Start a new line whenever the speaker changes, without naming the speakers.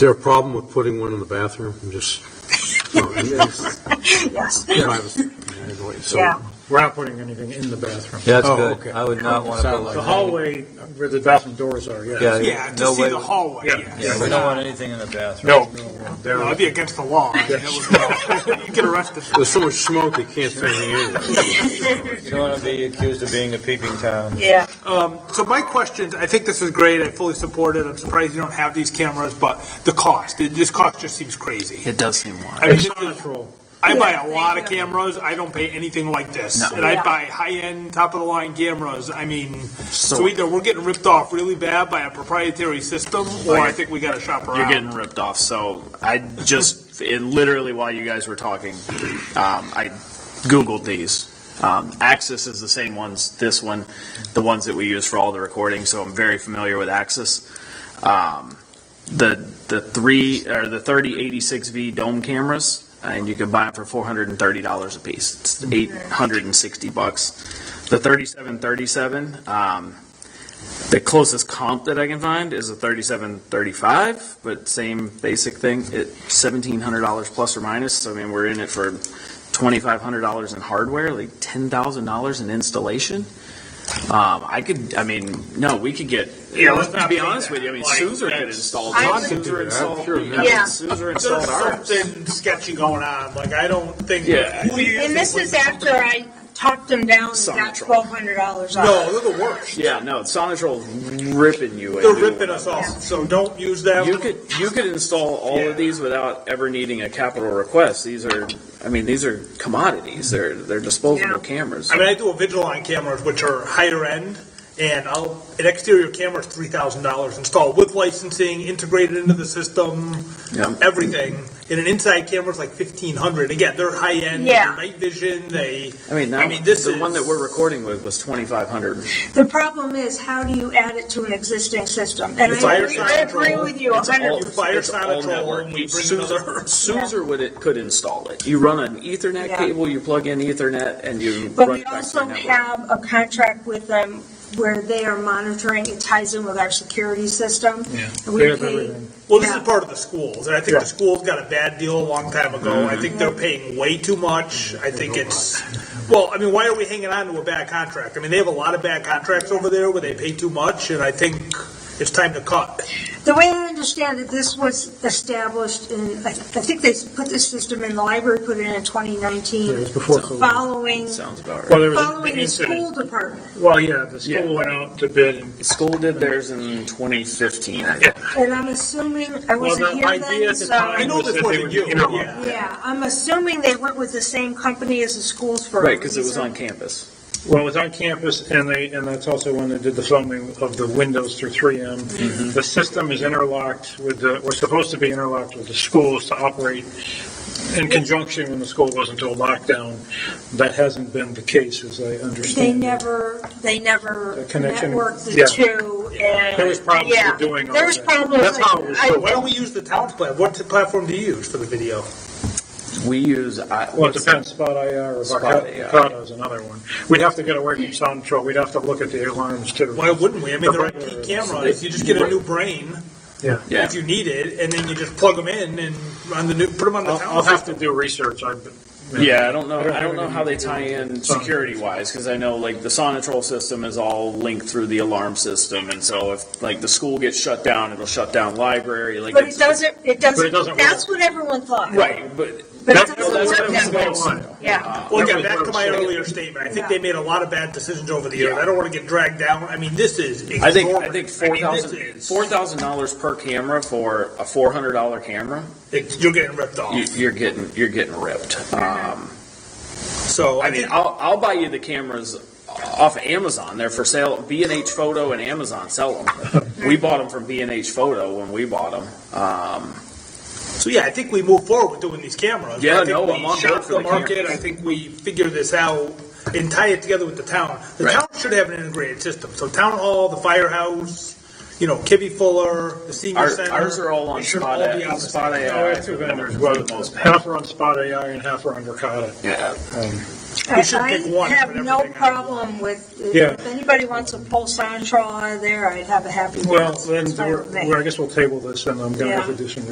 there a problem with putting one in the bathroom? I'm just. no, I mean, it's
Yes.
privacy. I mean, wait, so-
Yeah.
We're not putting anything in the bathroom.
Yeah, that's
Oh,
good.
okay.
I would not want to put like.
The hallway where the bathroom doors are,
Yeah.
yeah.
Yeah, to
No
see
way
the
we-
hallway,
Yeah.
yeah.
Yeah, we don't want anything in the bathroom.
No.
No,
There,
That'd be against the law. That would- You'd get arrested.
There's so much smoke, you can't fit anything in.
You don't want to be accused of being a peeping Tom.
Yeah. Um, so my questions, I think this is great, I fully support it, I'm surprised you don't have these cameras, but the cost, it- this cost just seems crazy.
It does seem wild.
I mean,
it's not a troll.
I buy a lot of cameras, I don't pay anything like this,
No.
and I
Yeah.
buy high-end, top-of-the-line cameras, I mean, so either we're getting ripped off really bad by a proprietary system, or I think we gotta shop around.
You're getting ripped off. So I just, it literally while you guys were talking, um, I Googled these. Um, Axis is the same ones, this one, the ones that we use for all the recording, so I'm very familiar with Axis. Um, the, the three, or the thirty eighty-six V dome cameras, and you can buy them for four hundred and thirty dollars a piece. It's eight hundred and sixty bucks. The thirty-seven thirty-seven, um, the closest comp that I can find is a thirty-seven thirty-five, but same basic thing. It seventeen hundred dollars plus or minus. So I mean, we're in it for twenty-five hundred dollars in hardware, like ten thousand dollars in installation. Um, I could, I mean, no, we could get.
Yeah, let's not
be
do
honest
that.
with you. I mean,
Like,
Suzer could
that's-
install.
I
Todd
would-
Suzer
Yeah,
installed-
sure,
I mean,
yeah.
Suzer installed
There's
ours.
something sketchy going on, like, I don't think.
Yeah.
And this is after I talked them down and got
Sonotron.
twelve hundred dollars off.
No, they're the worst.
Yeah, no, Sonatrol's ripping you. a
They're
new
ripping
one.
us off, so don't use that.
You
one.
could, you could install all
Yeah.
of these without ever needing a capital request. These are, I mean, these are commodities. They're, they're disposable
Yeah.
cameras.
I mean, I do Invisalign cameras, which are higher end, and I'll, an exterior camera is three thousand dollars installed with licensing, integrated into the system,
Yeah.
everything. And an inside camera is like fifteen hundred. Again, they're high end,
Yeah.
night vision, they.
I mean,
I
now,
mean, this
the one
is-
that we're recording with was twenty-five hundred.
The problem is, how do you add it to an existing system? And
It's
I
fire
agree, I agree
control.
with you a hundred.
You fire
it's all
Sonatrol
network.
and we bring
Suzer-
another-
Suzer would, it could install it. You run an ethernet
Yeah.
cable, you plug in ethernet and you
But
run
we
it back to
also
the network.
have a contract with them where they are monitoring, it ties in with our security system.
Yeah.
And we
They have
pay,
everything.
Well, this
Yeah.
is part of the schools, and I think
Yeah.
the schools got a bad deal a long time ago. I think they're paying way too much.
Mm-hmm.
I think it's, well, I mean, why are we hanging on to a bad contract? I mean, they have a lot of bad contracts over there where they pay too much, and I think it's time to cut.
the way I understand it, this was established in, I I think they put this system in, the library put it in in twenty
It
nineteen,
was before COVID.
following,
Sounds about right.
Well, there was
following
an
the school
incident.
department.
Well, yeah, the
Yeah.
school went out to bid and
School did theirs in twenty fifteen, I think.
And I'm assuming, I
Well,
wasn't
the
here
idea
then,
at the
so.
time
I know
was
this
that they
wasn't
were
you,
interim.
yeah.
Yeah, I'm assuming they went with the same company as the schools for a
Right, because it was
reason.
on campus.
Well, it was on campus, and they, and that's also when they did the filming of the windows through
Mm-hmm.
3M. The system is interlocked with the, was supposed to be interlocked with the schools to operate in conjunction when the school goes into a lockdown. That hasn't been the case, as I
They
understand. it.
never, they never
The connection,
networked the
yeah.
two and.
There was problems
yeah,
with doing all
There was
that.
problems.
That's how it was
I-
So why don't we use the town's plan? What platform do you use for the video?
We use, I,
Well, it depends, Spot IR or
Spot IR.
Vakata is another one. We'd have to get away from sound control, we'd have to look at the alarms too.
Why wouldn't we? I mean, they're IP cameras. You just get a new brain
Yeah.
Yeah.
if you need it, and then you just plug them in and run the new, put them on the
I'll, I'll
town's.
have to do research, I've been.
Yeah, I don't know, I
have
don't know how they
anything to
tie
do with
in
sound.
security wise, because I know like the Sonatrol system is all linked through the alarm system, and so if like the school gets shut down, it'll shut down library, like.
But it
it's-
doesn't, it doesn't,
doesn't
that's what everyone thought.
Right, but.
But it
That's-
doesn't
that's
work
what I was
that way.
going on.
Yeah.
Well, again, back to my earlier statement, I think they made a lot of bad decisions over the years. I don't want to get dragged down. I mean, this is
I think,
exorbitant.
I think
I
four
mean, this
thousand,
is-
four thousand dollars per camera for a four hundred dollar camera,
it- You're getting ripped off.
you, you're getting, you're getting ripped. Um,
So
I
I
mean,
think,
I'll, I'll buy you the cameras off of Amazon. They're for sale. B and H Photo and Amazon sell them. we bought them from B and H Photo when we bought them. Um,
so yeah, I think we move forward with doing these cameras.
Yeah,
I think
no,
we
I'm on board
shop
for
the
the cameras.
market. I think we figure this out and tie it together with the town. The
Right.
town should have an integrated system. So town hall, the firehouse, you know, Kibby Fuller, the senior
ours,
center.
ours are all on
It should
Spot
all be
AI.
on the
Spot
same-
AI
Oh, it's two vendors, well,
for the most part.
half are on Spot AI and half are on Verkada.
Yeah.
We should pick
I
one and
have
put
no
everything on.
problem with,
Yeah.
if anybody wants to pull Sonatrol out of there, I'd have a happy.
Well,
dance.
then,
It's fine with me.
we're- I guess we'll table this, and I'm going to have to
Yeah.
do some